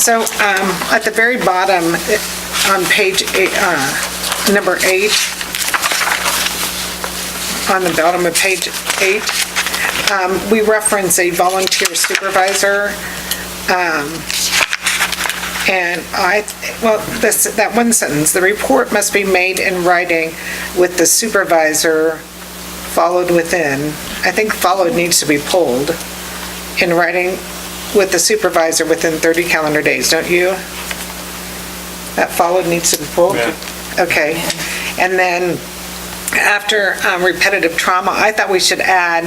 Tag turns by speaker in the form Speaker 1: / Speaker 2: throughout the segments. Speaker 1: So um, at the very bottom, it- on page, eight- uh, number eight, on the bottom of page eight, um, we reference a volunteer supervisor. um, And I, well, this, that one sentence, "The report must be made in writing with the supervisor followed within." I think followed needs to be pulled. In writing with the supervisor within 30 calendar days, don't you? That followed needs to be pulled?
Speaker 2: Yeah.
Speaker 1: Okay. And then after um, repetitive trauma, I thought we should add,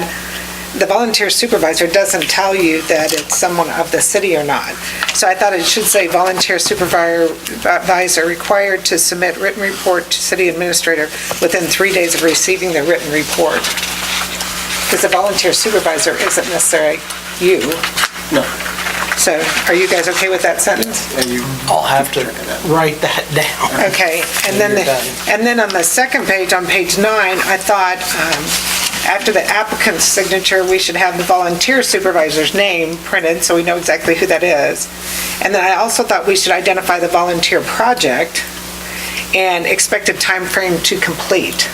Speaker 1: the volunteer supervisor doesn't tell you that it's someone of the city or not. So I thought it should say volunteer supervisor required to submit written report to city administrator within three days of receiving the written report. Because a volunteer supervisor isn't necessarily you.
Speaker 3: No.
Speaker 1: So are you guys okay with that sentence?
Speaker 3: I'll have to write that down.
Speaker 1: Okay, and then, the-
Speaker 3: You're done.
Speaker 1: and then on the second page, on page nine, I thought, um, after the applicant's signature, we should have the volunteer supervisor's name printed, so we know exactly who that is. And then I also thought we should identify the volunteer project and expected time frame to complete.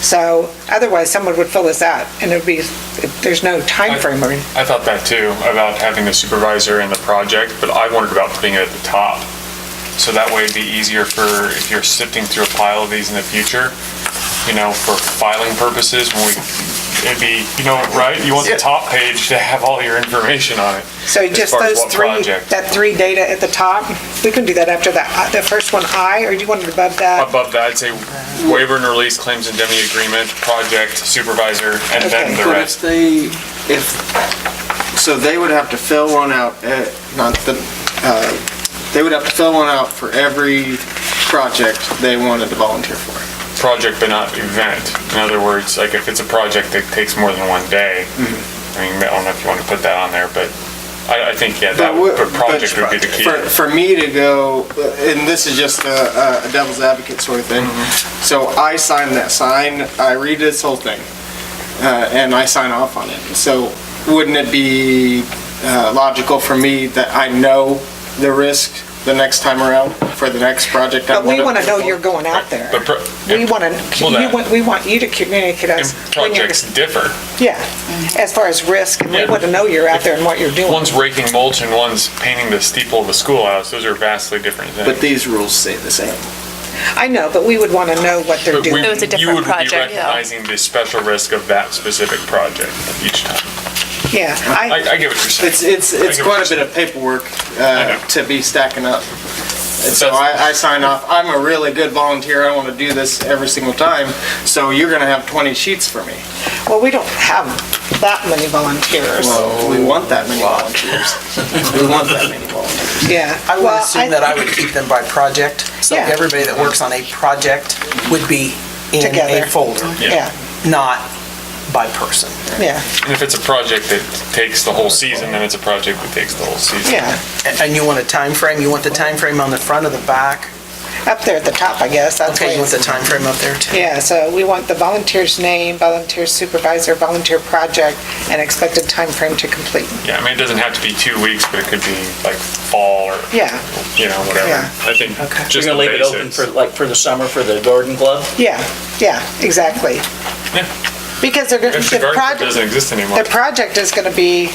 Speaker 1: So otherwise, someone would fill this out, and it'd be, there's no time frame. or-
Speaker 2: I thought that too, about having the supervisor and the project, but I wondered about putting it at the top. So that way it'd be easier for, if you're sifting through a pile of these in the future, you know, for filing purposes, when we, it'd be, you know, right? You want the top page to have all your information on it.
Speaker 1: So
Speaker 2: as
Speaker 1: just
Speaker 2: far as
Speaker 1: those
Speaker 2: what
Speaker 1: three,
Speaker 2: project.
Speaker 1: that three data at the top, we can do that after that, the first one, I, or do you want it above that?
Speaker 2: Above that, I'd say waiver and release claims indemnity agreement, project supervisor, and then
Speaker 1: Okay.
Speaker 2: the
Speaker 4: But
Speaker 2: rest.
Speaker 4: if they, if, so they would have to fill one out, eh, not the, uh, they would have to fill one out for every project they wanted to volunteer for.
Speaker 2: project but not event. In other words, like if it's a project that takes more than one day,
Speaker 1: Mm-hmm.
Speaker 2: I mean, I don't know if you want to put that on there, but I, I think, yeah, that,
Speaker 4: But would-
Speaker 2: would- but project would be the key.
Speaker 4: For, for me to go, uh, and this is just a a devil's advocate sort of thing,
Speaker 2: Mm-hmm.
Speaker 4: so I sign that sign, I read this whole thing, uh, and I sign off on it. So wouldn't it be uh, logical for me that I know the risk the next time around for the next project? I
Speaker 1: But we want to know
Speaker 4: do?
Speaker 1: you're going out there.
Speaker 2: But pro-
Speaker 1: We
Speaker 2: and-
Speaker 1: want
Speaker 2: Well, that-
Speaker 1: to, we want you to communicate us.
Speaker 2: And
Speaker 1: when you're-
Speaker 2: projects differ.
Speaker 1: Yeah, as far as risk, and we
Speaker 2: Yeah.
Speaker 1: want to know you're out there and what you're doing.
Speaker 2: One's raking mulch and one's painting the steeple of a schoolhouse. Those are vastly different things.
Speaker 4: But these rules say the same.
Speaker 1: I know, but we would want to know what they're
Speaker 2: But we-
Speaker 1: doing.
Speaker 5: It was a different project,
Speaker 2: You
Speaker 5: yeah.
Speaker 2: would be recognizing the special risk of that specific project each time.
Speaker 1: Yeah,
Speaker 2: I,
Speaker 1: I,
Speaker 2: I get what you're saying.
Speaker 4: It's, it's,
Speaker 2: I
Speaker 4: it's
Speaker 2: get what
Speaker 4: quite a
Speaker 2: you're
Speaker 4: bit of paperwork
Speaker 2: know.
Speaker 4: uh, to be stacking up. And so I, I sign off, I'm a really good volunteer, I want to do this every single time, so you're going to have 20 sheets for me.
Speaker 1: well, we don't have that many volunteers.
Speaker 4: Well, we want that many volunteers. We want that many volunteers.
Speaker 1: Yeah.
Speaker 3: I would
Speaker 1: Well,
Speaker 3: assume that I would keep them by project, so
Speaker 1: Yeah.
Speaker 3: everybody that works on a project would be in
Speaker 1: Together.
Speaker 3: a folder,
Speaker 1: Yeah,
Speaker 3: not by person.
Speaker 1: yeah,
Speaker 2: And if it's a project that takes the whole season, then it's a project that takes the whole season.
Speaker 1: yeah.
Speaker 3: And and you want a time frame? you want the time frame on the front or the back?
Speaker 1: Up there at the top, I guess, that's
Speaker 3: Okay, you
Speaker 1: where
Speaker 3: want
Speaker 1: it's
Speaker 3: the time frame up there too?
Speaker 1: Yeah, so we want the volunteer's name, volunteer supervisor, volunteer project, and expected time frame to complete.
Speaker 2: Yeah, I mean, it doesn't have to be two weeks, but it could be like fall or,
Speaker 1: Yeah,
Speaker 2: you know, whatever.
Speaker 1: Yeah.
Speaker 2: I think
Speaker 3: Okay.
Speaker 2: just
Speaker 6: You're
Speaker 2: the
Speaker 6: gonna leave it open
Speaker 2: basics.
Speaker 6: for, like, for the summer for the garden club?
Speaker 1: yeah, yeah, exactly.
Speaker 2: Yeah.
Speaker 1: Because they're, gonna-
Speaker 2: If the
Speaker 1: the
Speaker 2: garden club
Speaker 1: project,
Speaker 2: doesn't exist anymore,
Speaker 1: the project is going to be,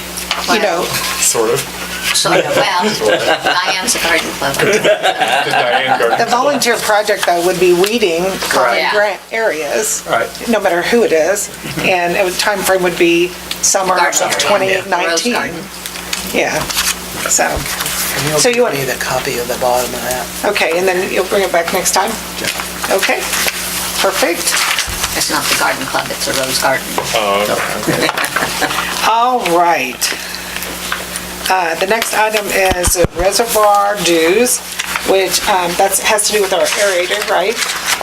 Speaker 1: you know,
Speaker 2: sort of,
Speaker 7: Sort of, well, Diane's a garden club.
Speaker 2: the Diane Garden.
Speaker 1: the volunteer project though would be weeding common
Speaker 7: Right.
Speaker 1: grant areas.
Speaker 6: Right.
Speaker 1: No matter who it is,
Speaker 2: Mm-hmm.
Speaker 1: and it would- time frame would be summer of
Speaker 7: Garden area, rose
Speaker 1: 2019.
Speaker 7: garden.
Speaker 1: Yeah, so,
Speaker 3: And you'll
Speaker 1: So you want-
Speaker 3: give me the copy of the bottom of that.
Speaker 1: okay, and then you'll bring it back next time? Okay, perfect.
Speaker 7: It's not the garden club, it's a rose garden.
Speaker 1: All right. Uh, The next item is reservoir dues, which, um, that's, has to do with our aerator, right?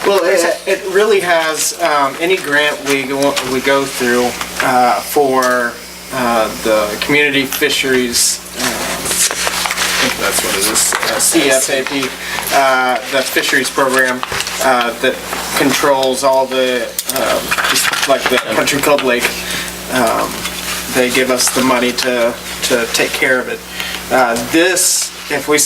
Speaker 4: Well, it, it really has, um, any grant we go, we go through, uh, for, uh, the community fisheries, um, I think that's what it is, uh, CFAP, uh, the fisheries program, uh, that controls all the, um, just like the Country Club Lake. Um, They give us the money to, to take care of it. Uh, this, if we